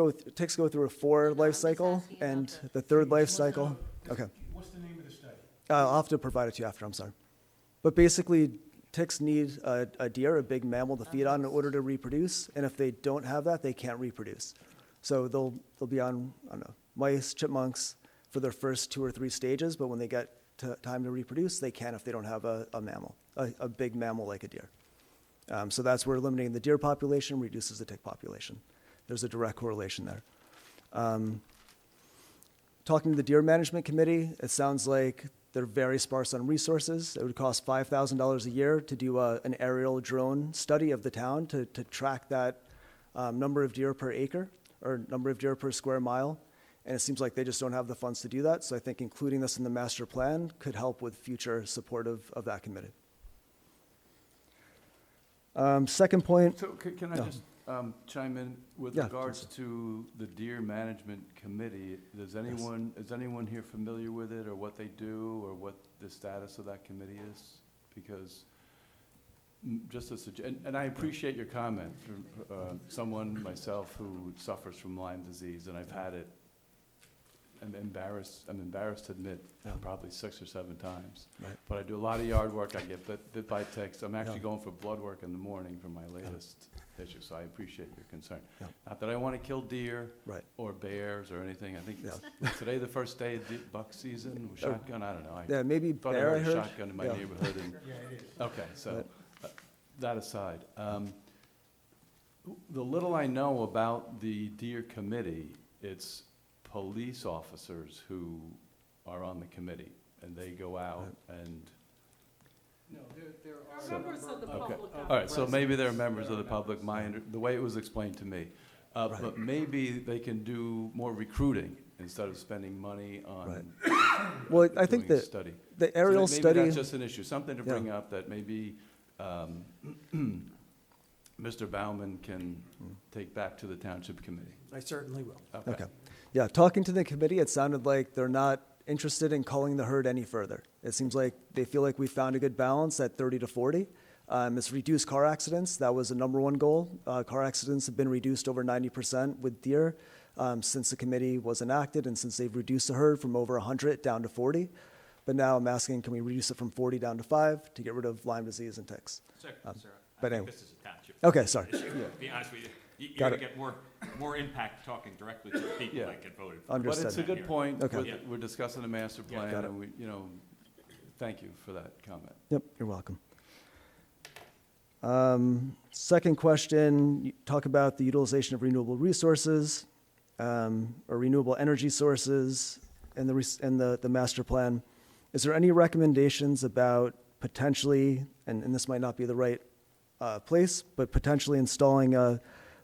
go th- ticks go through a four life cycle, asking about and the- the third life cycle, okay. What's the name of the study? Uh, I'll have to provide it to you after, I'm sorry. But basically, ticks need a, a deer, a big mammal to feed Uh-huh. on in order to reproduce, and if they don't have that, they can't reproduce. So they'll, they'll be on, I don't know, mice, chipmunks for their first two or three stages, but when they get to time to reproduce, they can if they don't have a, a mammal, a, a big mammal like a deer. Um, so that's where eliminating the deer population reduces the tick population. There's a direct correlation there talking to the deer management committee, it sounds like they're very sparse on resources. It would cost five thousand dollars a year to do a, an aerial drone study of the town to, to track that um, number of deer per acre or number of deer per square mile. And it seems like they just don't have the funds to do that. So I think including this in the master plan could help with future support of, of that committee. Um, second point, So ca- can I No. just um, chime in with Yeah, regards to the Deer Management Committee? Does anyone, is anyone here familiar with it or what they do or what the status of that committee is? Because mm, just a sugge- and, and I appreciate your comment from uh, someone, myself, who suffers from Lyme disease and I've had it. I'm embarrassed, I'm embarrassed to admit, Yeah. probably six or seven times. Right. But I do a lot of yard work, I get bit, bit by ticks. I'm actually Yeah. going for blood work in the morning for my latest issue, so I appreciate your concern. Yeah. Not that I want to kill deer right, or bears or anything, I think, is today the first day of de- buck season, with Uh, shotgun, I don't know. I yeah, maybe thought I bear, I heard a heard. shotgun in my Yeah. neighborhood and Yeah, it is. Okay, so, uh, that aside, um, the little I know about the deer committee, it's police officers who are on the committee, and they go out and, No, there, there are. a Members of the number Okay. public. of Uh, all right, so maybe they're residents members that of the are public, members. my, under- the way it was explained to me. Uh, but maybe they can do more recruiting instead of spending money on Well, I doing think a that study. the So may- aerial study. Maybe that's just an issue, something to Yeah. bring up that maybe um, Mr. Bauman can take back to the township committee. I certainly will. Mm-hmm. Okay. Yeah, talking to the committee, it sounded like they're not interested in calling the herd any further. It seems like they feel like we found a good balance at 30 to 40. Um, it's reduced car accidents. That was the number one goal. Uh, car accidents have been reduced over 90% with deer um, since the committee was enacted and since they've reduced the herd from over 100 down to 40. But now I'm asking, can we reduce it from 40 down to 5 to get rid of Lyme disease and ticks? Sir, sir, I Um, but think anyway. this is a township. Okay, sorry. issue, to be honest with you. You, you're Got gonna it. get more, more impact talking directly to the people Yeah. that get voted for. But it's a Understood. good point, Okay. with- Yeah. we're discussing the master Yeah. plan, Got it. and we, you know, thank you for that comment. Yep, you're welcome. Um, Second question, you talk about the utilization of renewable resources um, or renewable energy sources in the, res- in the, the master plan. Is there any recommendations about potentially, and, and this might not be the right uh, place, but potentially installing a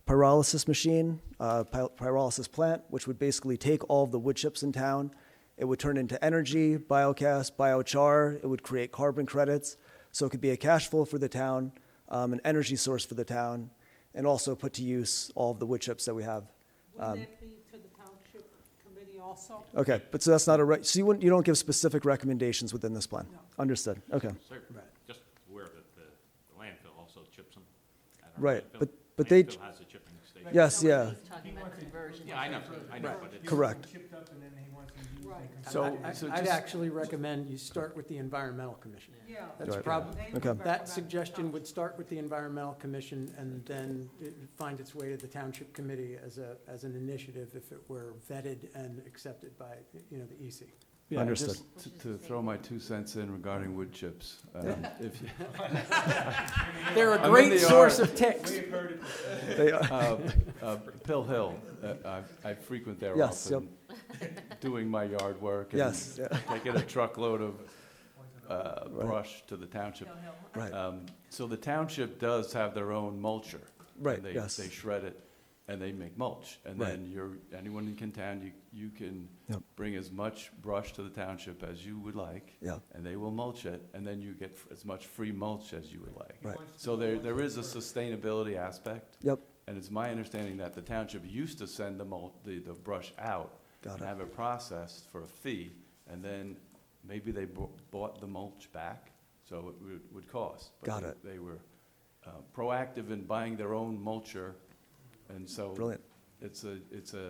pyrolysis machine, uh, py- pyrolysis plant, which would basically take all of the wood chips in town. It would turn into energy, biocast, biochar. It would create carbon credits. So it could be a cash flow for the town, um, an energy source for the town, and also put to use all of the wood chips that we have. Would that be to the township committee also? um, Okay, but so that's not a, re- so you wouldn't, you don't give specific recommendations within this plan? No. Understood, okay. Sir, Right. just aware that the the landfill also chips them. I don't know, Right, landfill- but- but they- Landfill has a chipping station. Yes, No, yeah, He's talking about conversion. Yeah, I know, I know, but it's. correct. Chipped up and then he wants them used. Right. and So- I- so I'd just- actually recommend you start with the Environmental Commission. Yeah. That's Right. probably, They Okay. would that recommend suggestion would start with the Environmental Commission and then it would find its way to the Township Committee as a, as an initiative if it were vetted and accepted by, you know, the E EC. Yeah, Understood. just t- To throw my two cents in regarding wood chips. um, if you- They're a I'm in great the source yard. of ticks. We've heard it They are- uh, uh, Pill Hill, uh, I- I frequent there Yes, often, doing my yard work. and Yes, yeah. Taking a truckload of uh, brush to the township. No, no. right, Um, So the township does have their own mulcher. and Right, they- yes. They shred it and they make mulch. And Right. then you're, anyone in town, you, you can Yep. bring as much brush to the township as you would like, yeah, and they will mulch it, and then you get f- as much free mulch as you would like. right, So there, there is a sustainability aspect, yep, and it's my understanding that the township used to send the mulch, the, the brush out got and it, have it processed for a fee, and then maybe they bo- bought the mulch back, so it would, would cost. But Got they- it. They were uh, proactive in buying their own mulcher, and so brilliant, It's a, it's a